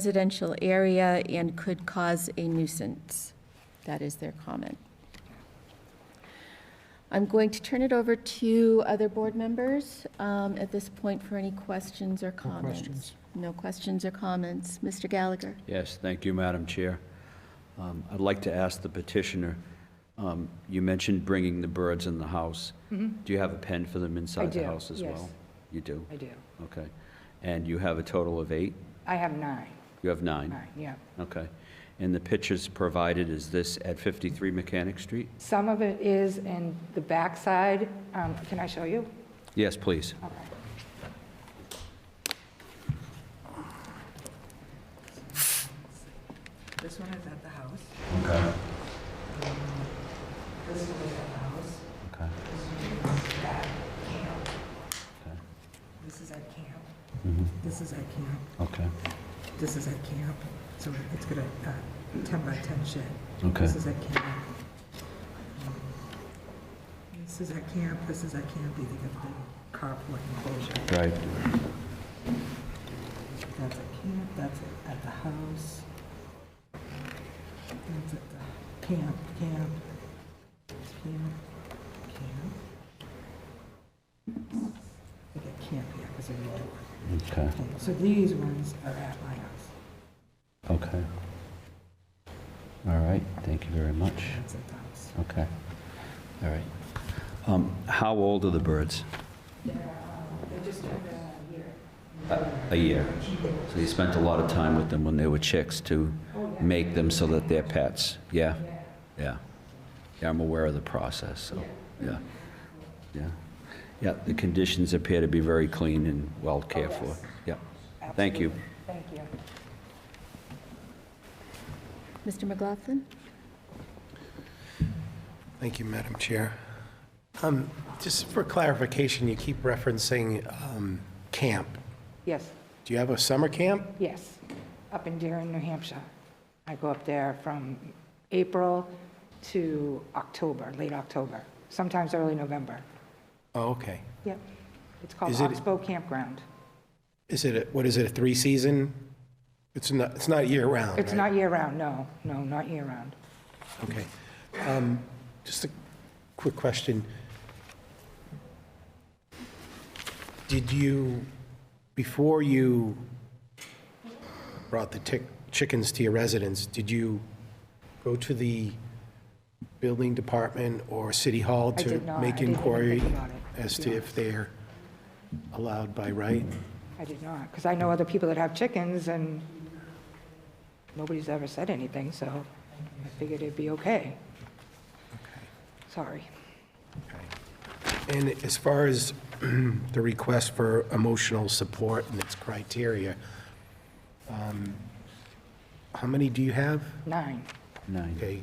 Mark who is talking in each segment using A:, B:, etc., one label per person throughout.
A: residential area and could cause a nuisance. That is their comment. I'm going to turn it over to other board members um, at this point for any questions or
B: No
A: comments.
B: questions?
A: No questions or comments. Mr. Gallagher?
C: Yes, thank you, Madam Chair. Um, I'd like to ask the petitioner, um, you mentioned bringing the birds in the house. Do you have a pen for them inside the
D: Mm-hmm. do,
C: house as well?
D: yes.
C: You do?
D: I do.
C: Okay. And you have a total of eight?
D: I have nine,
C: You have nine?
D: nine, yeah.
C: Okay. And the pictures provided, is this at 53 Mechanic Street?
D: Some of it is in the backside. Um, Can I show you?
C: Yes, please.
D: Okay.
E: This one is at the house. This one is at the house.
C: Okay.
E: This is at camp. This is at camp.
C: Mm-hmm. Okay.
E: This is at camp. So it's gonna, uh, ten by ten shed.
C: Okay.
E: This is at camp. This is at camp, this is at camp, they think of the carport enclosure.
C: Right.
E: That's at camp, that's at- at the house. That's at the camp, camp, camp, camp. I got camp here because I need to.
C: Okay,
E: Okay, So these ones are at my house.
C: okay. All right, thank you very much.
E: That's at the house.
C: Okay, all right. Um, How old are the birds? They're just over Uh, a year. A year. So you spent a lot of time with them when they were chicks to make them so that they're pets? Yeah? Yeah. Yeah, I'm aware of the process, so, yeah. Yeah. Yeah, the conditions appear to be very clean and well cared for. Yeah, thank you.
D: Thank you.
A: Mr. McLaughlin?
F: Thank you, Madam Chair. Um, Just for clarification, you keep referencing um, camp.
D: Yes,
F: Do you have a summer camp?
D: yes, up in Deering, New Hampshire. I go up there from April to October, late October, sometimes early November.
F: Oh, okay.
D: Yep. It's called
F: Is it-
D: Oxbow Campground.
F: Is it, a- what is it, a three-season? It's not, it's not year-round,
D: It's
F: right?
D: not year-round, no, no, not year-round.
F: Okay. Um, Just a quick question. Did you, before you brought the tick- chickens to your residence, did you go to the building department or city hall
D: I
F: to
D: did not. I
F: make
D: didn't even
F: inquiry
D: think about it.
F: as to if they're allowed by right?
D: I did not, because I know other people that have chickens, and nobody's ever said anything, so I figured it'd be okay. Sorry.
F: And as far as the request for emotional support and its criteria, um, how many do you have?
D: Nine.
C: Nine.
F: Okay,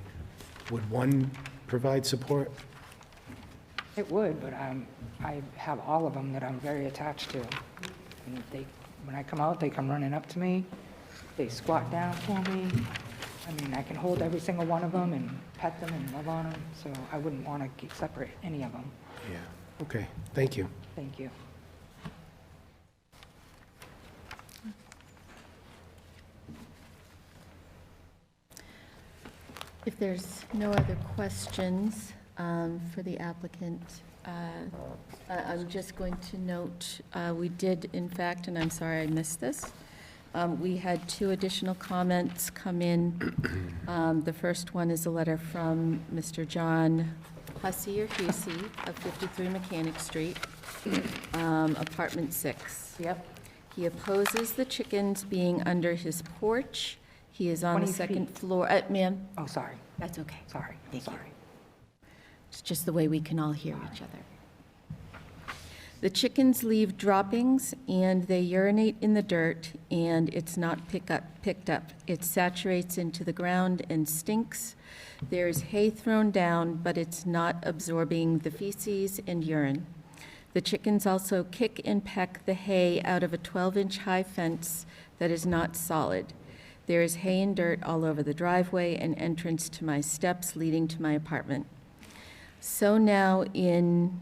F: would one provide support?
D: It would, but i I have all of them that I'm very attached to. And they, when I come out, they come running up to me, they squat down for me. I mean, I can hold every single one of them and pet them and love on them, so I wouldn't want to separate any of them.
F: Yeah, okay, thank you.
D: Thank you.
A: If there's no other questions um, for the applicant, uh, I- I'm just going to note, uh, we did, in fact, and I'm sorry I missed this, um, we had two additional comments come in. Um, The first one is a letter from Mr. John Hussey or Hussey of 53 Mechanic Street, um, apartment 6.
D: Yep.
A: He opposes the chickens being under his porch. He is on the
D: 20
A: second
D: feet.
A: floor. Uh, Ma'am?
D: Oh, sorry,
A: That's okay.
D: sorry,
A: Thank you.
D: sorry.
A: It's just the way we can all hear each other. The chickens leave droppings and they urinate in the dirt and it's not pick up, picked up. It saturates into the ground and stinks. There's hay thrown down, but it's not absorbing the feces and urine. The chickens also kick and peck the hay out of a 12-inch high fence that is not solid. There is hay and dirt all over the driveway and entrance to my steps leading to my apartment. So now in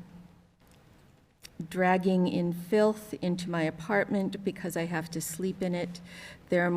A: dragging in filth into my apartment because I have to sleep in it, there are